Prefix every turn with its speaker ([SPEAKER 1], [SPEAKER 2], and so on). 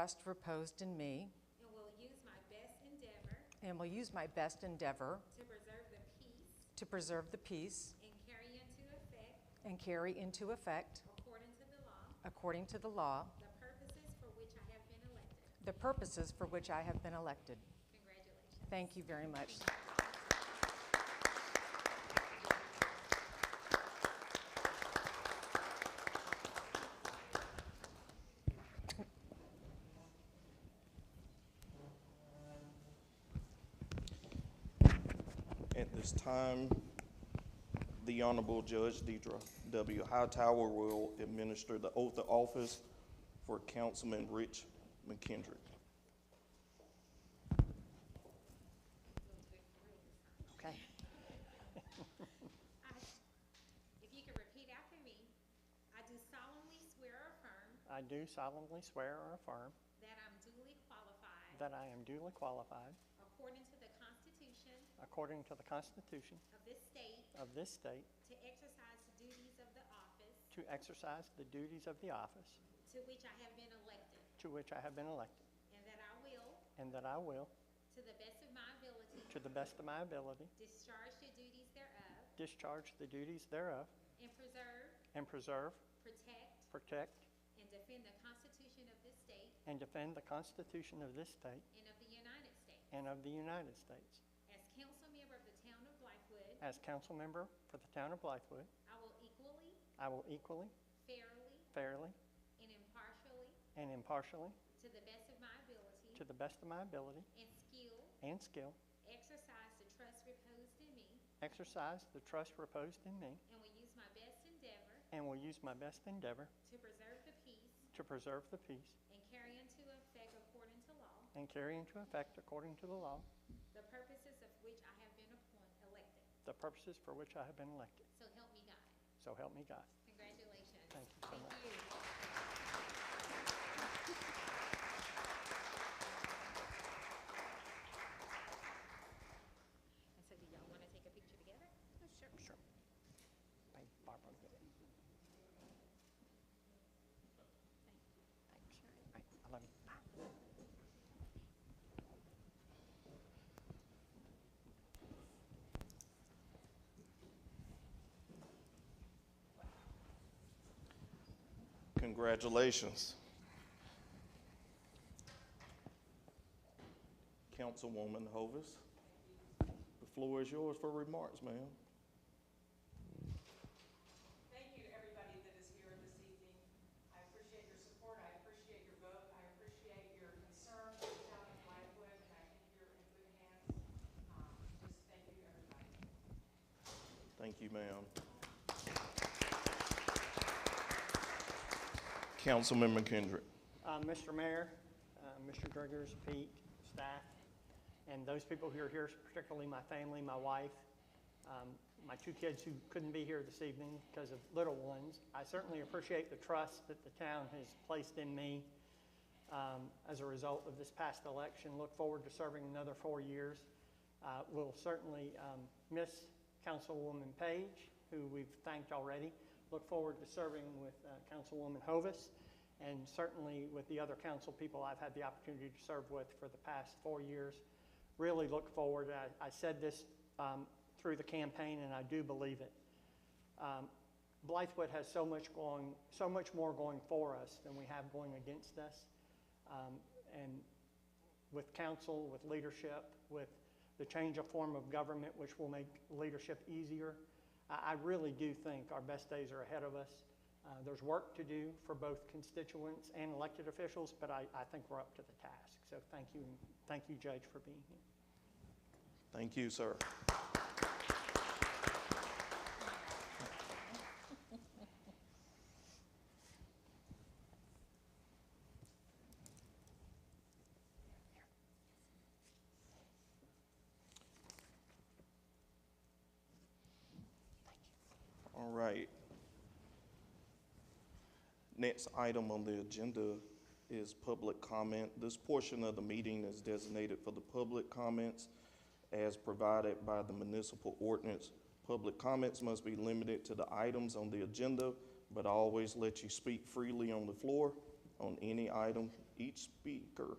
[SPEAKER 1] trust reposed in me,
[SPEAKER 2] and will use my best endeavor
[SPEAKER 1] and will use my best endeavor
[SPEAKER 2] to preserve the peace
[SPEAKER 1] to preserve the peace
[SPEAKER 2] and carry into effect,
[SPEAKER 1] and carry into effect,
[SPEAKER 2] according to the law,
[SPEAKER 1] according to the law,
[SPEAKER 2] the purposes for which I have been
[SPEAKER 1] the
[SPEAKER 2] elected.
[SPEAKER 1] purposes for which I have been elected.
[SPEAKER 2] Congratulations.
[SPEAKER 1] Thank you very much.
[SPEAKER 3] At this time, the Honorable Judge Deidre W. Hightower will administer the oath of office for Councilman Rich McKendrick.
[SPEAKER 1] Okay.
[SPEAKER 2] I- If you could repeat after me, I do solemnly swear or affirm
[SPEAKER 4] I do solemnly swear or affirm
[SPEAKER 2] that I'm duly qualified,
[SPEAKER 4] that I am duly qualified,
[SPEAKER 2] according to the Constitution
[SPEAKER 4] according to the Constitution
[SPEAKER 2] of this state,
[SPEAKER 4] of this state,
[SPEAKER 2] to exercise the duties of the office
[SPEAKER 4] to exercise the duties of the office
[SPEAKER 2] to which I have been elected,
[SPEAKER 4] to which I have been elected,
[SPEAKER 2] and that I will,
[SPEAKER 4] and that I will,
[SPEAKER 2] to the best of my ability,
[SPEAKER 4] to the best of my ability,
[SPEAKER 2] discharge the duties thereof,
[SPEAKER 4] discharge the duties thereof,
[SPEAKER 2] and preserve,
[SPEAKER 4] and preserve,
[SPEAKER 2] protect,
[SPEAKER 4] protect,
[SPEAKER 2] and defend the Constitution of this state
[SPEAKER 4] and defend the Constitution of this state
[SPEAKER 2] and of the United States.
[SPEAKER 4] and of the United States.
[SPEAKER 2] As council member of the town of Blythewood,
[SPEAKER 4] As council member for the town of Blythewood,
[SPEAKER 2] I will equally,
[SPEAKER 4] I will equally,
[SPEAKER 2] fairly,
[SPEAKER 4] fairly,
[SPEAKER 2] and impartially,
[SPEAKER 4] and impartially,
[SPEAKER 2] to the best of my
[SPEAKER 4] to
[SPEAKER 2] ability
[SPEAKER 4] the best of my ability
[SPEAKER 2] and skill,
[SPEAKER 4] and skill,
[SPEAKER 2] exercise the trust reposed in me,
[SPEAKER 4] exercise the trust reposed in me,
[SPEAKER 2] and will use my best endeavor
[SPEAKER 4] And will use my best endeavor
[SPEAKER 2] to preserve the peace
[SPEAKER 4] to preserve the peace
[SPEAKER 2] and carry into effect according to law
[SPEAKER 4] and carry into effect according to the law
[SPEAKER 2] the purposes of which I have been appoint- elected.
[SPEAKER 4] the purposes for which I have been elected.
[SPEAKER 2] So help me God.
[SPEAKER 4] So help me God.
[SPEAKER 2] Congratulations.
[SPEAKER 4] Thank you so much.
[SPEAKER 2] you. And so do y'all want to take a picture together? Sure.
[SPEAKER 4] Sure. Thank you, Barbara. Thanks. I love you. Bye.
[SPEAKER 3] Congratulations. Councilwoman Hovis, the floor is yours for remarks, ma'am.
[SPEAKER 5] Thank you to everybody that is here this evening. I appreciate your support, I appreciate your vote, I appreciate your concern for the town of Blythewood, and I think you're in good hands. Um, Just thank you, everybody.
[SPEAKER 3] Thank you, ma'am. Councilman McKendrick.
[SPEAKER 4] Uh, Mr. Mayor, uh, Mr. Driggers, Pete, staff, and those people who are here, particularly my family, my wife, um, my two kids who couldn't be here this evening because of little ones. I certainly appreciate the trust that the town has placed in me um, as a result of this past election. Look forward to serving another four years. Uh, We'll certainly um, miss Councilwoman Page, who we've thanked already. Look forward to serving with uh, Councilwoman Hovis, and certainly with the other council people I've had the opportunity to serve with for the past four years. Really look forward, I- I said this um, through the campaign, and I do believe it. Um, Blythewood has so much going, so much more going for us than we have going against us. Um, And with council, with leadership, with the change of form of government, which will make leadership easier, I, I really do think our best days are ahead of us. Uh, There's work to do for both constituents and elected officials, but I, I think we're up to the task. So thank you, and thank you, Judge, for being here.
[SPEAKER 3] Thank you, sir. All right. Next item on the agenda is public comment. This portion of the meeting is designated for the public comments as provided by the municipal ordinance. Public comments must be limited to the items on the agenda, but I always let you speak freely on the floor on any item each speaker